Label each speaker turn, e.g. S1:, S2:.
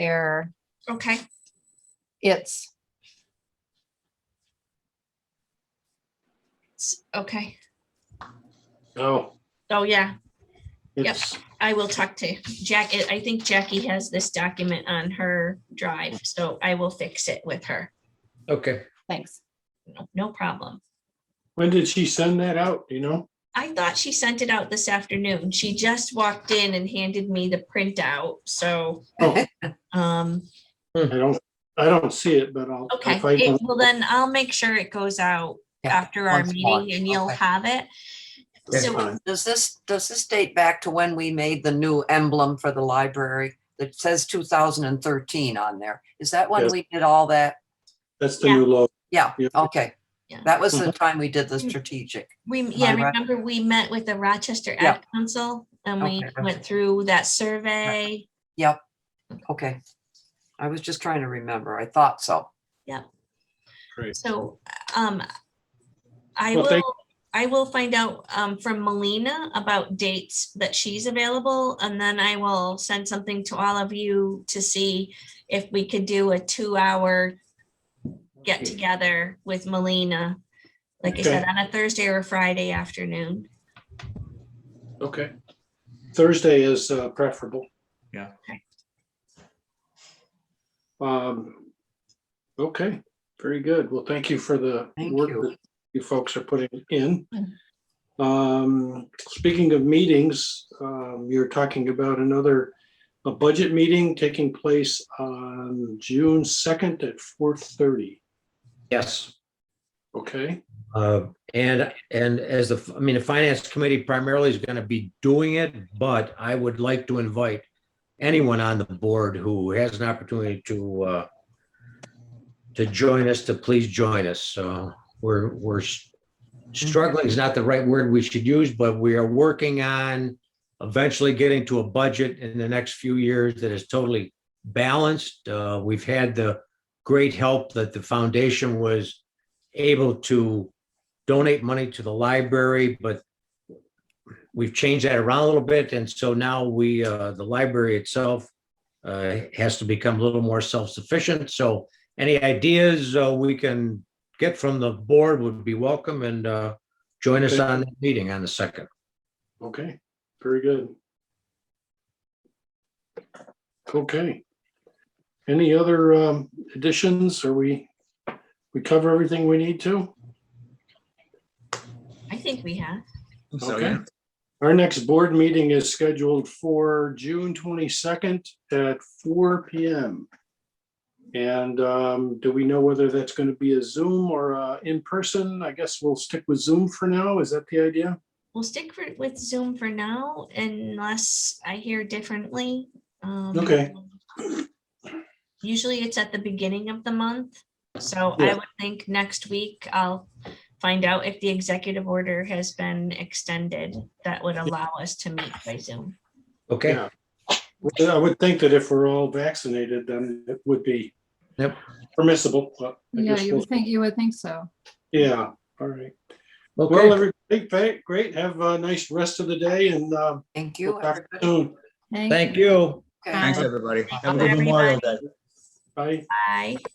S1: there,
S2: Okay,
S1: it's,
S2: S- okay.
S3: Oh,
S2: Oh, yeah,
S3: it's,
S2: I will talk to Jack. I I think Jackie has this document on her drive, so I will fix it with her.
S4: Okay,
S1: thanks.
S2: No- No problem.
S3: when did she send that out, do you know?
S2: I thought she sent it out this afternoon. She just walked in and handed me the printout, so.
S3: Oh.
S2: Um,
S3: I don't, I don't see it, but I'll. I'll
S2: okay,
S3: find
S2: It-
S3: out.
S2: well then I'll make sure it goes out
S5: Yeah,
S2: after our
S5: once more.
S2: meeting and you'll
S5: Okay.
S2: have it.
S3: That's
S2: So
S3: fine.
S5: Does this, does this date back to when we made the new emblem for the library that says two thousand and thirteen on there? Is that when
S3: Yes.
S5: we did all that?
S3: That's the
S2: yeah.
S3: new low.
S5: Yeah,
S3: Yeah.
S5: okay.
S2: Yeah.
S5: That was the time we did the strategic.
S2: We, yeah,
S5: Right.
S2: remember we met with the Rochester
S5: Yeah.
S2: Ad Council and we
S5: Okay,
S2: went
S5: okay.
S2: through that survey.
S5: Yep. Okay. I was just trying to remember. I thought so.
S3: Great.
S2: So, um, I
S3: Well, thank-
S2: will, I will find out, um, from Melina about dates that she's available. And then I will send something to all of you to see if we could do a two-hour get together with Melina. Like I said, on a Thursday or a Friday afternoon.
S3: Okay. Thursday is uh, preferable.
S6: Yeah.
S2: Okay.
S3: Um, okay, very good. Well, thank you for the
S5: Thank
S3: work
S5: you. Mm-hmm.
S3: that you folks are putting in. Um, speaking of meetings, um, you're talking about another, a budget meeting taking place on June second at four thirty.
S4: yes.
S3: Okay,
S4: Uh, And, and as the, I mean, the finance committee primarily is going to be doing it, but I would like to invite anyone on the board who has an opportunity to, uh, to join us, to please join us. So we're, we're s- struggling is not the right word we should use, but we are working on eventually getting to a budget in the next few years that is totally balanced. Uh, We've had the great help that the foundation was able to donate money to the library, but we've changed that around a little bit, and so now we, uh, the library itself uh, has to become a little more self-sufficient, so any ideas uh, we can get from the board would be welcome, and uh, join us on that meeting on the second.
S3: okay, very good. Okay. Any other um, additions? Are we, we cover everything we need to?
S2: I think we have.
S6: So,
S3: Okay.
S6: yeah.
S3: Our next board meeting is scheduled for June twenty-second at four P M. And um, do we know whether that's going to be a Zoom or uh, in person? I guess we'll stick with Zoom for now. Is that the idea?
S2: We'll stick for- with Zoom for now unless I hear differently. Um,
S3: Okay.
S2: Usually it's at the beginning of the month, so
S3: Yeah.
S2: I would think next week I'll find out if the executive order has been extended that would allow us to meet by Zoom.
S4: Okay,
S3: Yeah. I would think that if we're all vaccinated, then it would be
S4: Yep.
S3: permissible. but I
S7: Yeah,
S3: guess
S7: you
S3: we'll-
S7: would think, you would think so.
S3: Yeah, all right. Well,
S4: okay,
S3: everybody, great, great. Have a nice rest of the day and uh,
S5: Thank
S3: we'll
S5: you.
S3: talk
S5: everybody.
S3: soon.
S4: thank you.
S5: Okay.
S6: Thanks,
S2: Bye.
S6: everybody. Have a good Memorial Day.
S3: Bye.
S2: Bye.